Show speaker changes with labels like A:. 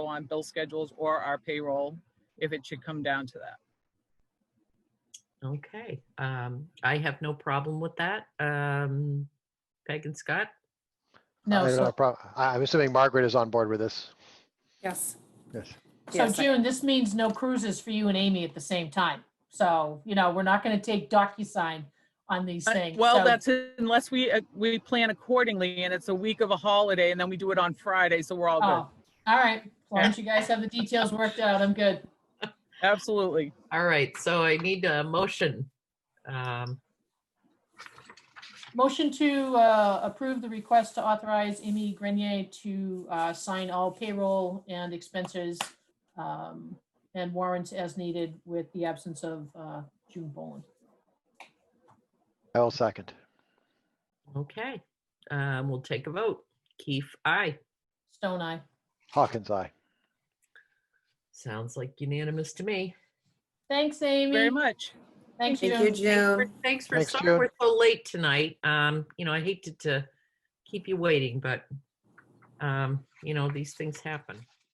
A: on bill schedules or our payroll if it should come down to that.
B: Okay, um, I have no problem with that. Um, Peg and Scott?
C: I
D: No,
C: don't
D: so,
C: have prob- I- I'm assuming Margaret is on board with this.
E: Yes.
C: Yes.
D: so June, this means no cruises for you and Amy at the same time. So, you know, we're not going to take DocuSign on these
A: Uh,
D: things.
A: Well,
D: so-
A: that's it, unless we, uh, we plan accordingly and it's a week of a holiday and then we do it on Friday, so we're all
D: Oh,
A: good.
D: all right. As long as you guys have the details worked out, I'm good.
A: Absolutely.
B: All right, so I need a motion. Um,
D: Motion to uh, approve the request to authorize Amy Grenier to uh, sign all payroll and expenses um, and warrants as needed with the absence of uh, June Boland.
C: I will second.
B: okay, um, we'll take a vote. Keith, aye.
D: Stone Eye.
C: Hawkins, aye.
B: Sounds like unanimous to me.
D: Thanks, Amy.
A: Very much.
D: Thank
E: Thank you,
D: you.
B: For-
E: June.
B: Thanks for,
C: Thanks,
B: sorry
C: June.
B: we're so late tonight. Um, you know, I hate to, to keep you waiting, but, um, you know, these things happen.